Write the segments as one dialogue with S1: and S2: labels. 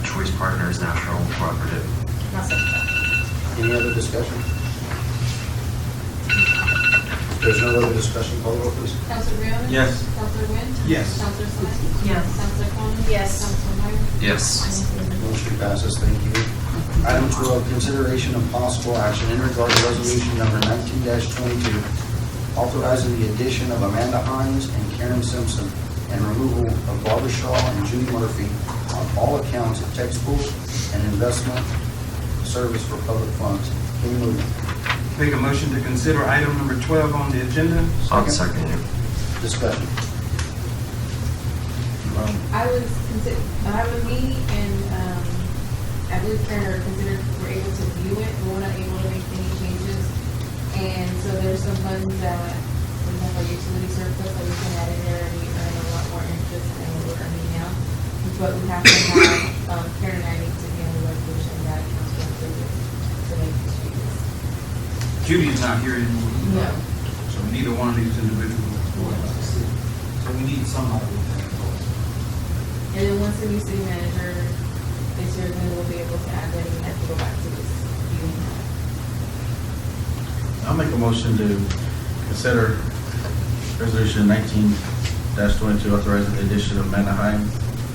S1: Fisheries Partners National Cooperative.
S2: I'll second that.
S3: Any other discussion? If There's no other discussion, call the roll, please.
S4: Counselor Rowan?
S5: Yes.
S4: Counselor Wynn?
S5: Yes.
S4: Counselor Sines?
S2: Yes.
S4: Counselor Coleman?
S2: Yes.
S4: Counselor Meyer?
S1: Yes.
S3: Motion passes, thank you. Item 12, consideration of possible action in regard to resolution number 19-22, authorizing the addition of Amanda Hines and Karen Simpson and removal of Barbara Shaw and Judy Murphy on all accounts of textbook and investment service for public funds. Can you move it?
S5: Make a motion to consider item number 12 on the agenda.
S1: I'll second it.
S3: Discussion. Um,
S4: I was consider, I was me and, um, I believe Karen are considered, were able to view it, but we're not able to make any changes. And so there's some funds that, we have our utility surplus that we can add in there and we earn a lot more interest than what we're earning now. But we have to have, um, Karen and I need to be on the resolution that council approves to make these changes.
S5: Judy's not here anymore.
S4: No.
S5: So neither one of these individuals. So we need somebody.
S4: And then once the new city manager is here, then we'll be able to add that, and have to go back to this meeting.
S6: I'll make a motion to consider resolution nineteen twenty-two authorizing the addition of Amanda Hines,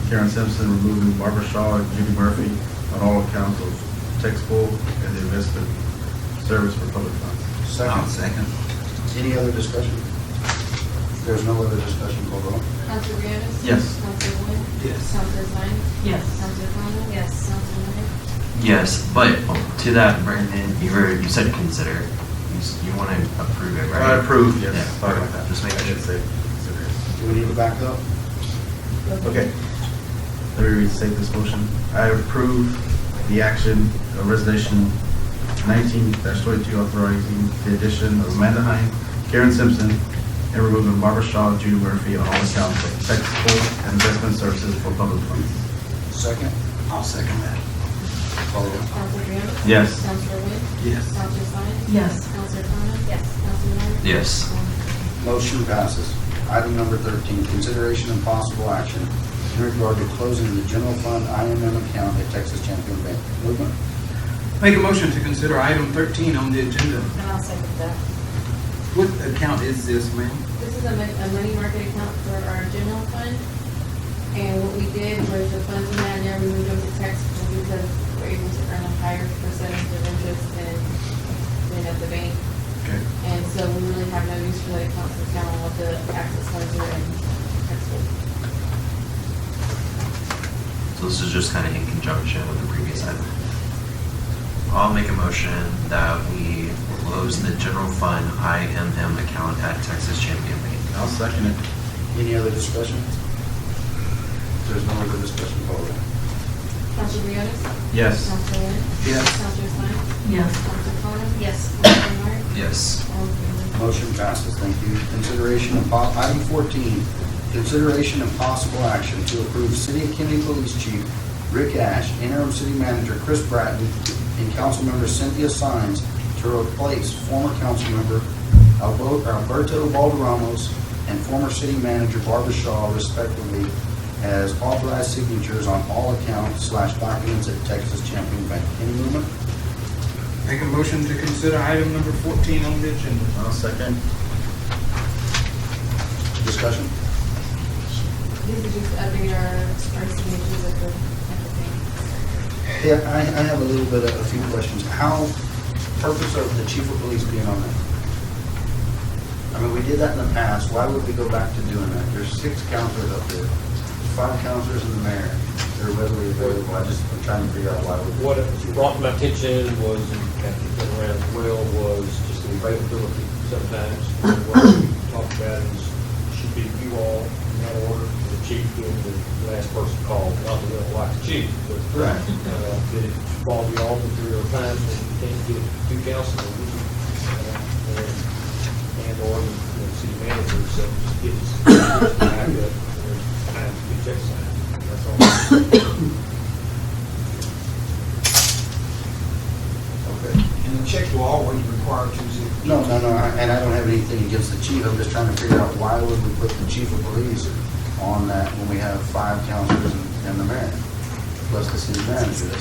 S6: Karen Simpson, removing Barbara Shaw and Judy Murphy on all accounts of tax pool and the investment service for public funds.
S5: I'll
S3: Second,
S5: second.
S3: any other discussion? If There's no other discussion, call the roll.
S4: Counselor Reyes?
S6: Yes.
S4: Counselor Wood?
S5: Yes.
S4: Counselor Sines?
S2: Yes.
S4: Counselor Conlon?
S2: Yes.
S4: Counselor Meyer?
S1: Yes, but to that, Brandon, you were, you said consider. You, s- you want to approve it, right?
S6: I approve, yes.
S1: Yeah,
S6: Sorry about that.
S1: Just make
S6: I
S1: sure.
S6: didn't say consider.
S3: Do we need to back up?
S6: Okay. Let me restate this motion. I approve the action of resolution nineteen twenty-two authorizing the addition of Amanda Hine, Karen Simpson, and removing Barbara Shaw and Judy Murphy on all accounts of taxable and investment services for public funds.
S3: Second,
S5: I'll second that.
S3: call the roll.
S4: Counselor Reyes?
S6: Yes.
S4: Counselor Wood?
S5: Yes.
S4: Counselor Sines?
S2: Yes.
S4: Counselor Conlon?
S2: Yes.
S4: Counselor Meyer?
S1: Yes.
S3: Motion passes. Item number 13, consideration and possible action in regard to closing the general fund IMM account at Texas Champion Bank. Movement.
S5: Make a motion to consider item 13 on the agenda.
S2: And I'll second that.
S5: What account is this, ma'am?
S4: This is a mon- a money market account for our general fund. And what we did was the funds we had there, we moved them to taxable because we're able to earn a higher percentage of interest than, than at the bank.
S5: Okay.
S4: And so we really have no use for that account since now all the access funds are in taxable.
S1: So this is just kind of in conjunction with the previous item. I'll make a motion that we close the general fund IMM account at Texas Champion Bank.
S6: I'll second it.
S3: Any other discussion? If There's no other discussion, call the roll.
S4: Counselor Briones?
S6: Yes.
S4: Counselor Lynn?
S5: Yes.
S4: Counselor Sines?
S2: Yes.
S4: Counselor Connor? Yes. Counselor Meyer?
S1: Yes.
S4: All in favor?
S3: Motion passes, thank you. Consideration of, po- item 14, consideration of possible action to approve City of Kennedy Police Chief Rick Ash, interim city manager Chris Bratton, and Councilmember Cynthia Sines to replace former Councilmember Albo- Alberto Valderamos and former city manager Barbara Shaw respectively as authorized signatures on all accounts slash documents at Texas Champion Bank. Any movement?
S5: Make a motion to consider item number 14 on the agenda.
S6: I'll second.
S3: Discussion?
S4: This is just to update our, our signatures at the, at the bank.
S3: Yeah, I, I have a little bit of, a few questions. How, purpose of the chief of police being on that? I mean, we did that in the past, why would we go back to doing that? There's six counselors up there, five counselors and the mayor, they're readily available, I just, I'm trying to figure out why we.
S7: What it brought to my attention was, and around as well, was just the availability sometimes. What we talked about is, should be you all in that order, the chief being the last person called, not that we don't like the chief, but.
S3: Right.
S7: uh, That it brought you all to three or times, and you can't get two councilors, uh, and, and or the city manager, so just get us, get us back up, and time to be checked, that's all.
S3: Okay.
S8: And the check will always require two signatures.
S3: No, no, no, I- and I don't have anything against the chief, I'm just trying to figure out why would we put the chief of police on that when we have five counselors and and the mayor? request the city manager.